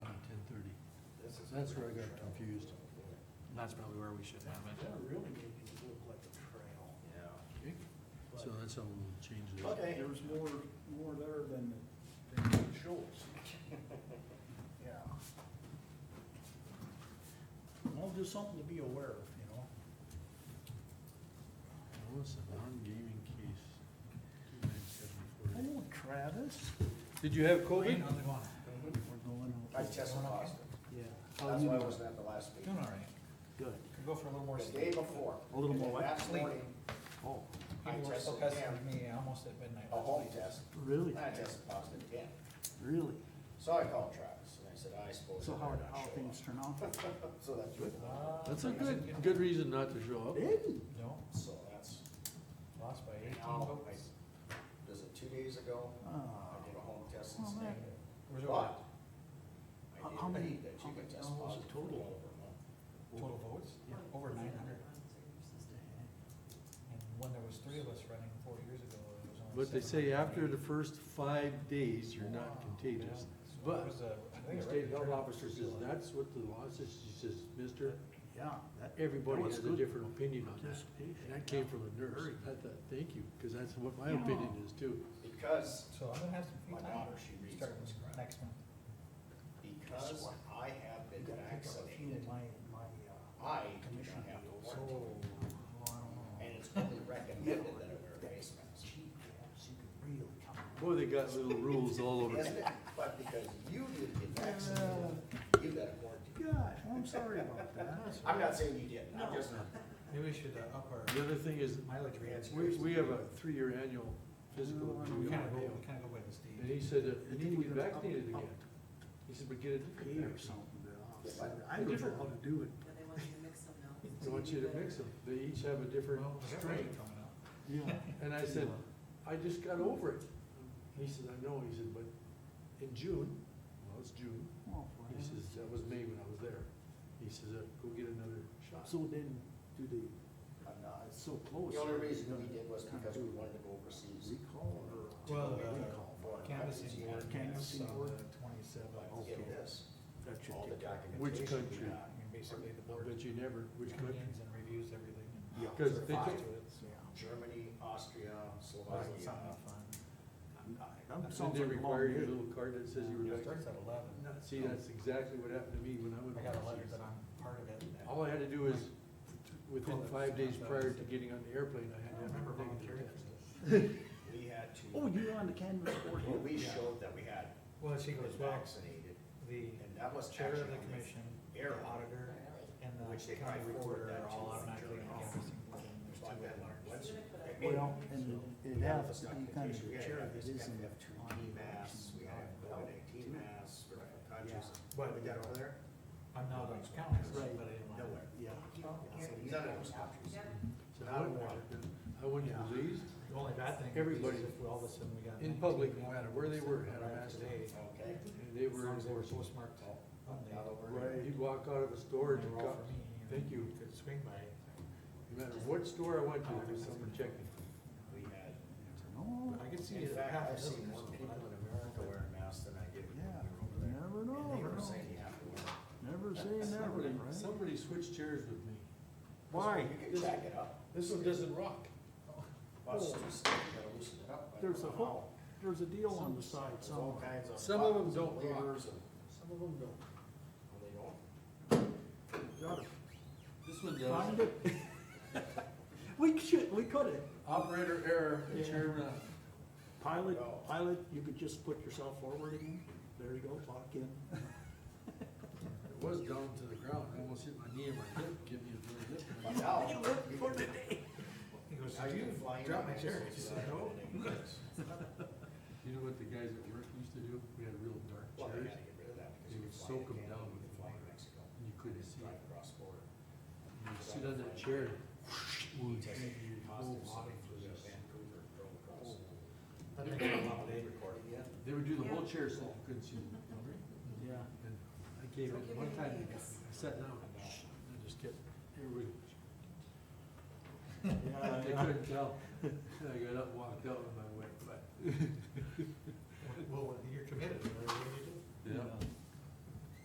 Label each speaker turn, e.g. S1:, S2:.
S1: that's where I got confused.
S2: That's probably where we should have it.
S3: That really made these look like a trail.
S2: Yeah.
S3: but-
S1: So that's how we'll change it.
S3: But there's more, more there than, than it shows. Yeah. Well, just something to be aware of, you know?
S1: Notice a non-gaming case, two nine seven
S3: Hello, Travis.
S1: four. Did you have COVID?
S2: How's it going?
S3: We're going
S4: I
S3: out.
S4: tested positive.
S3: Yeah.
S4: That's why I wasn't at the last meeting.
S2: Doing all right.
S3: Good.
S2: Could go for a little more
S4: The
S2: sleep.
S4: day before.
S3: A little more what?
S4: Last
S2: Sleep.
S4: morning,
S3: Oh,
S4: I
S2: People were still
S4: tested
S2: pestering
S4: again,
S2: me almost at midnight.
S4: a
S2: last
S4: home
S2: week.
S4: test,
S3: really?
S4: and I tested positive again.
S3: Really?
S4: So I called Travis and I said, I suppose.
S3: So
S4: I
S3: how,
S4: better not
S3: how
S4: show
S3: things
S4: up."
S3: turn out?
S4: So that's good.
S2: Ah,
S1: That's a
S2: I guess I
S1: good,
S2: didn't
S1: good reason not to show up.
S3: Didn't.
S2: get- No,
S4: So that's,
S2: lost by eighteen
S4: now, I,
S2: votes.
S4: was it two days ago?
S3: Ah.
S4: I did a home test and
S2: Oh,
S3: Well,
S4: stayed.
S3: that-
S2: Where's
S4: But.
S2: our
S4: I
S3: How-
S4: did
S3: how many-
S4: read that you
S3: how
S4: could
S3: many
S4: test
S3: hours
S4: positive
S3: total?
S4: all over a month.
S2: total votes?
S1: Yeah.
S2: Over nine hundred.
S5: Well,
S2: And when there was three of us running four years ago, it was only.
S1: But they say
S2: 700.
S1: after the first five days, you're not contagious.
S2: Yeah, so it
S1: But
S2: was a- I think
S1: the
S2: a
S1: state
S2: record
S1: health
S2: turnout.
S1: officer says that's what the law says. She says, mister,
S3: Yeah, that.
S1: everybody
S3: That was
S1: has a
S3: good
S1: different opinion on that.
S3: participation.
S1: And that came from a nurse. I thought, thank you, because that's what my opinion is too.
S4: Because,
S2: So I'm gonna have some free
S4: My
S2: time
S4: daughter, she reads
S2: starting
S4: this crap.
S2: next month.
S4: because I have
S3: You
S4: been
S3: gotta pick up a few
S4: vaccinated,
S3: of my, my, uh,
S4: I do
S3: commission
S4: not have to
S3: deals.
S4: work.
S3: Oh, I don't know.
S4: And it's only recommended that I wear a face mask.
S3: Cheap gas, you could really come.
S1: Boy, they got little rules all over.
S4: Isn't it? But because you didn't get vaccinated, you got a quarantine.
S3: Gosh, well, I'm sorry about that.
S4: I'm not saying you didn't, I'm just,
S2: Maybe we should uh, up our
S1: The other thing is,
S2: mileage rates.
S1: we, we have a three-year annual physical. that
S3: No, I know.
S1: we
S2: We kinda
S1: all
S2: go,
S1: pay.
S2: we kinda go by the
S1: And
S2: state.
S1: he said, that you need to get vaccinated again. He said, but get a
S3: Pay
S1: different
S3: or
S1: vaccine.
S3: something, but I'll say, I don't know how to do it.
S5: they want you to mix them now.
S1: They want you to mix them. They each have a different
S2: Well, we got
S1: strain.
S2: rain coming up.
S3: Yeah.
S1: And I said, I just got over it. He said, I know. He said, but in June, well, it's June.
S3: Well,
S1: He says, that was me when I was there. He says, "Uh, go get another shot.
S3: So then, do they, uh,
S4: I'm not.
S3: it's so close.
S4: The only reason we did was because we wanted to go overseas.
S3: Recall or?
S2: Well,
S3: Yeah,
S2: uh,
S3: recall.
S4: for a
S2: Canvassing
S4: pregnancy
S2: board
S4: and
S3: Canvassing
S2: meets on
S3: board.
S2: the twenty-seventh.
S4: But
S1: Oh,
S4: to get this,
S3: That should
S4: all the
S3: take.
S4: documentation.
S1: Which
S4: we
S1: country?
S2: I
S4: got,
S2: mean, basically the
S1: I
S2: board
S1: bet you never, which country?
S2: opinions and reviews everything and.
S3: Yeah.
S1: Because they
S2: certifies
S1: took-
S2: to it, so-
S3: Yeah.
S4: Germany, Austria,
S2: Well, it's
S4: Slovakia.
S2: not enough fun.
S3: That
S1: Did
S3: sounds
S1: they
S3: like a long
S1: require your
S3: day.
S1: little card that says you were
S2: Yeah, It starts
S1: vaccinated?
S2: at eleven.
S1: No, See, that's exactly what happened to me when I went.
S2: I got a
S1: overseas.
S2: letter that I'm part of it. and
S1: All I had to do is, within five days prior to getting on the airplane, I had to
S2: I
S1: have
S2: remember
S1: a
S2: volunteering
S1: negative
S2: for
S1: test.
S2: this.
S4: We had to,
S3: Oh, you were on the canvas board?
S4: well, we
S2: Yeah.
S4: showed that we had
S2: Well, she
S4: been
S2: goes, well,
S4: vaccinated,
S2: the
S4: and that was
S2: chair
S4: actually on
S2: of the
S4: the
S2: commission,
S4: air
S2: the auditor, and
S4: Which they
S2: the county
S4: probably forwarded
S2: recorder
S4: that
S2: are all
S4: to
S2: automatically
S4: Germany.
S2: on canvassing board. and there's
S4: Well,
S2: two of them.
S3: Well, and it has to be kind of
S4: We
S3: a
S4: had
S3: chair
S4: to have
S3: that
S4: this, we had
S3: isn't.
S4: to have two D masks, we had to have COVID nineteen masks for different countries.
S3: Yeah.
S4: What, we got over there?
S2: I'm now going to county, but I
S3: Right.
S2: didn't want.
S4: Nowhere.
S3: Yeah.
S4: So None of those countries.
S1: So I went, I went to Belize,
S2: The only bad thing
S1: Everybody
S2: is if we all of a sudden we got.
S1: in
S2: 19
S1: public, no
S2: now,
S1: matter where they were, had a
S2: right
S1: mask
S2: today,
S4: Okay.
S1: and they
S2: As
S1: were
S2: long as they were
S1: enforced.
S2: postmarked.
S4: Oh,
S2: on the-
S4: Not over.
S1: Right, you'd walk out of a store and
S2: they
S1: you
S2: were all
S1: got,
S2: for me, and
S1: thank you.
S2: Could swing by.
S1: no matter what store I went to, there was someone checking.
S4: We had,
S3: No,
S2: I could see
S4: in
S2: it
S4: fact,
S2: half a
S4: I've seen
S2: dozen or
S4: more
S2: something.
S4: people in America wearing masks than I did when
S3: yeah,
S4: we were over there.
S3: never know,
S4: And they
S3: never
S4: were
S3: know.
S4: saying you have to wear. it.
S3: Never say never,
S1: Somebody,
S3: right?
S1: somebody switched chairs with me.
S3: Why?
S4: You can jack it up.
S1: This one doesn't rock.
S4: Oh. Well, it's too stiff, you gotta loosen it up. I
S3: There's a
S4: don't know
S3: hook, there's a deal on
S4: how.
S3: the side
S4: There's all
S3: somewhere.
S4: kinds of.
S1: Some of them
S4: buttons and
S1: don't lock.
S4: levers and-
S1: Some of them don't.
S4: well, They don't.
S3: Gotta
S1: This one
S3: Find it. We should, we could have.
S1: Operator error, the uh,
S3: Yeah.
S1: chair rock.
S3: Pilot,
S4: No.
S3: pilot, you could just put yourself forward again. There you go, lock in.
S1: It was down to the ground, I almost hit my knee and my hip, give me a little dip.
S4: But now. you can-
S2: He goes,
S4: Now you
S2: "Dude,
S4: can fly in
S2: drop my
S4: on
S2: chair.
S4: axles
S2: She said,
S4: without
S2: no.
S4: anything else.
S1: You know what the guys at work used to do? We had real dark
S4: Well, they
S1: chairs,
S4: gotta get rid of that because
S1: They
S4: you
S1: would
S4: can fly
S1: soak
S4: into
S1: 'em down
S4: Canada, you
S1: with
S4: can fly
S1: water.
S4: in Mexico.
S1: and you couldn't see
S4: Drive
S1: it.
S4: across border.
S1: You'd sit on that chair. and
S4: We tested
S1: you'd
S4: positive,
S1: go
S4: so
S1: out
S4: they
S1: and
S4: flew to
S1: just-
S4: Vancouver, drove across.
S1: Oh.
S2: But they got a lot of
S4: They
S2: data.
S4: recorded yet?
S1: They would do the whole chair so you couldn't see the number.
S3: Yeah.
S1: And I gave it one time, and I sat down, and I just kept, everybody,
S3: Yeah,
S1: they couldn't tell. And I got up, and walked out on my way, but,
S2: Well, you're committed. whatever you do.
S1: yeah.